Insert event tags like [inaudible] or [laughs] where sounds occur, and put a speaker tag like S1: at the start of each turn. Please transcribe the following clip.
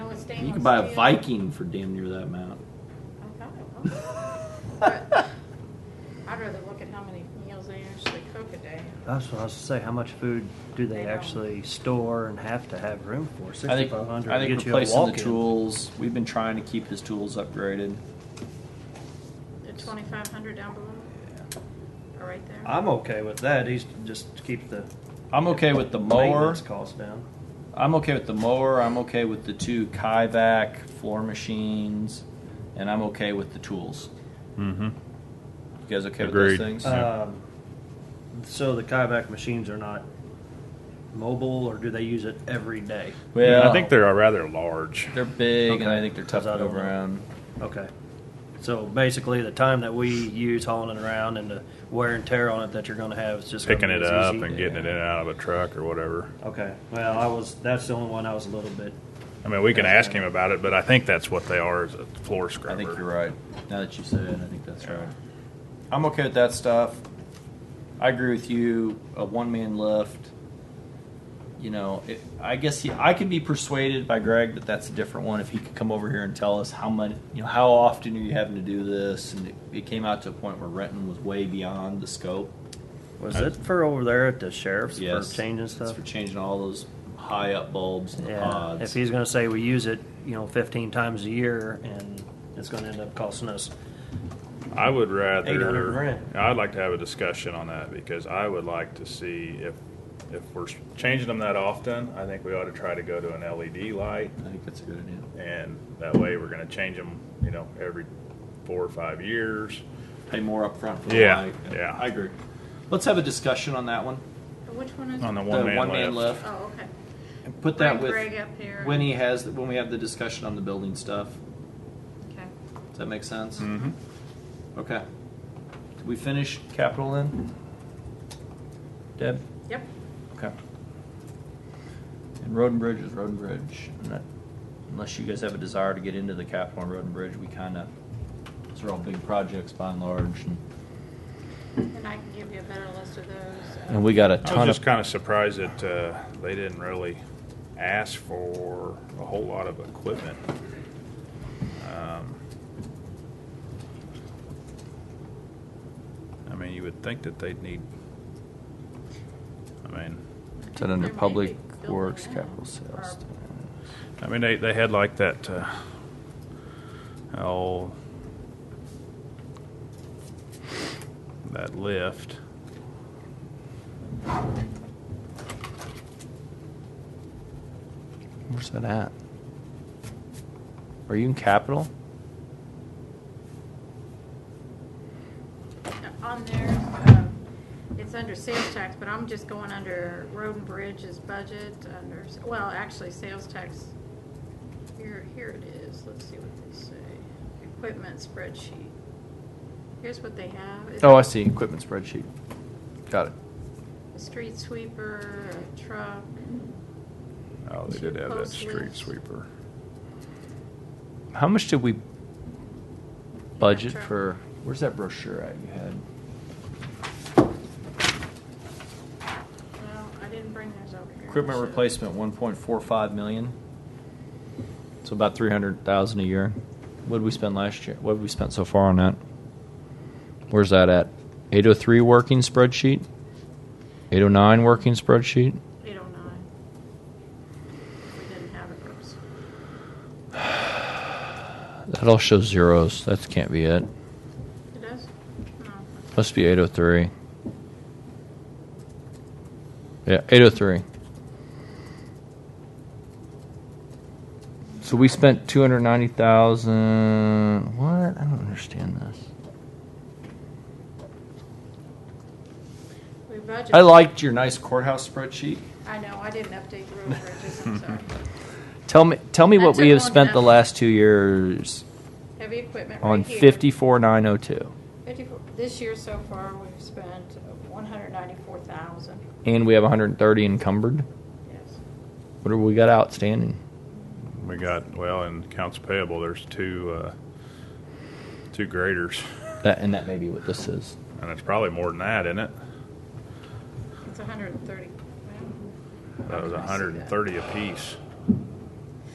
S1: stainless.
S2: You could buy a
S1: steel.
S2: Viking for damn near that amount.
S1: Okay, okay. But I'd rather look at how many meals they actually cook a day.
S3: That's what I was to say. How much food do they actually store and have to have room for?
S2: I think,
S3: Sixty-five hundred.
S2: I
S3: get
S2: think
S3: you a
S2: replacing the
S3: walk-in.
S2: tools, we've been trying to keep his tools upgraded.
S1: The twenty-five hundred down below, or right there.
S2: Uh,
S3: I'm okay with that. He's just to keep the
S2: I'm okay with the mower.
S3: maintenance costs down.
S2: I'm okay with the mower. I'm okay with the two Kivak floor machines, and I'm okay with the tools.
S4: Mm-hmm.
S2: You guys okay with
S4: Agreed.
S2: those things?
S4: Yeah.
S3: Um, so the kayak machines are not mobile, or do they use it every day?
S2: well,
S4: I think they're rather large.
S2: they're big, and
S3: Okay.
S2: I think they're tough
S3: Because I
S2: to
S3: don't
S2: move
S3: know.
S2: around.
S3: Okay. So basically, the time that we use hauling it around and the wear and tear on it that you're going to have is just gonna
S4: Picking
S3: be
S4: it
S3: as
S4: up
S3: easy.
S4: and getting it in and out of a truck or whatever.
S3: Okay. Well, I was. That's the only one I was a little bit.
S4: I mean, we can ask him about it, but I think that's what they are is a floor scrubber.
S2: I think you're right. Now that you said it, I think that's right. I'm okay with that stuff. I agree with you. A one man lift. You know, it, I guess he, I could be persuaded by Greg that that's a different one if he could come over here and tell us how much, you know, how often are you having to do this? And it, it came out to a point where renting was way beyond the scope.
S3: Was it for over there at the sheriff's
S2: Yes,
S3: for changing
S2: It's
S3: stuff?
S2: for changing all those high up bulbs and the
S3: yeah.
S2: pods.
S3: If he's going to say we use it, you know, 15 times a year, and it's going to end up costing us.
S4: I would
S3: 800
S4: rather,
S3: grand.
S4: I'd like to have a discussion on that because I would like to see if, if we're changing them that often, I think we ought to try to go to an LED light
S2: I think that's a good idea.
S4: and that way we're gonna change them, you know, every four or five years.
S2: Pay more upfront for the
S4: Yeah,
S2: light.
S4: yeah.
S2: I agree. Let's have a discussion on that one.
S1: But Which one is
S4: On the
S1: it?
S4: one
S2: Mm-hmm. the
S4: man
S2: one man
S4: lift.
S2: lift.
S1: Oh, okay.
S2: And put that
S1: Bring
S2: with
S1: Greg up here.
S2: when he has when we have the discussion on the building stuff.
S1: Okay.
S2: Does that make sense?
S4: Mm-hmm.
S2: Okay. Did we finish capital then? Deb.
S1: Yep.
S2: Okay. And road and bridge is road and bridge. And that- Unless you guys have a desire to get into the capital and road and bridge, we kind of those are all big projects by and large. And,
S1: And I can give you a better list of those. uh,
S2: and we got a
S4: I was
S2: ton
S4: just
S2: of
S4: kinda surprised that, uh, they didn't really ask for a whole lot of equipment. Um, I mean, you would think that they'd need, I mean,
S2: that
S1: There
S2: under
S1: may be
S2: public
S1: building
S2: works
S1: now,
S2: capital
S1: or
S2: sales.
S4: I mean, they, they had like that, uh, oh, that lift.
S2: Where's that at? Are you in capital?
S1: On there, um, it's under sales tax, but I'm just going under road and bridges budget, under, well, actually, sales tax. Here, here it is, let's see what they say, equipment spreadsheet. Here's what they have. It's
S2: Oh, I see. Equipment spreadsheet. Got it.
S1: A street sweeper, a truck,
S4: Oh, they did have that
S1: Post
S4: street
S1: lift.
S4: sweeper.
S2: How much did we budget
S1: Sure.
S2: for? Where's that brochure at you had?
S1: well, I didn't bring those over here. I
S2: Equipment
S1: should've.
S2: replacement, one point four five million. So about three hundred thousand a year. What did we spend last year? What have we spent so far on that? Where's that at? Eight oh three working spreadsheet. Eight oh nine working spreadsheet.
S1: 809. We didn't have it, oops.
S2: That all shows zeros. That can't be it.
S1: It does? No.
S2: Must be 803. Yeah, 803. So we spent 290,000. What? I don't understand this.
S1: We budgeted.
S2: I liked your nice courthouse spreadsheet.
S1: I know, I didn't update the road bridges, I'm
S4: [laughs]
S1: sorry.
S2: Tell me tell me what
S1: That's
S2: we
S1: a
S2: have
S1: long
S2: spent the
S1: time.
S2: last 2 years
S1: Heavy equipment
S2: on
S1: right here.
S2: 54902.
S1: 54 This year so far, we've spent one hundred ninety-four thousand,
S2: And we have 130 encumbered.
S1: yes.
S2: What do we got outstanding?
S4: We got, well, in accounts payable, there's two, uh, two graders,
S2: That and that may be what this is.
S4: and it's probably more than that, isn't it?
S1: It's a hundred and thirty.
S4: That was a hundred and thirty apiece.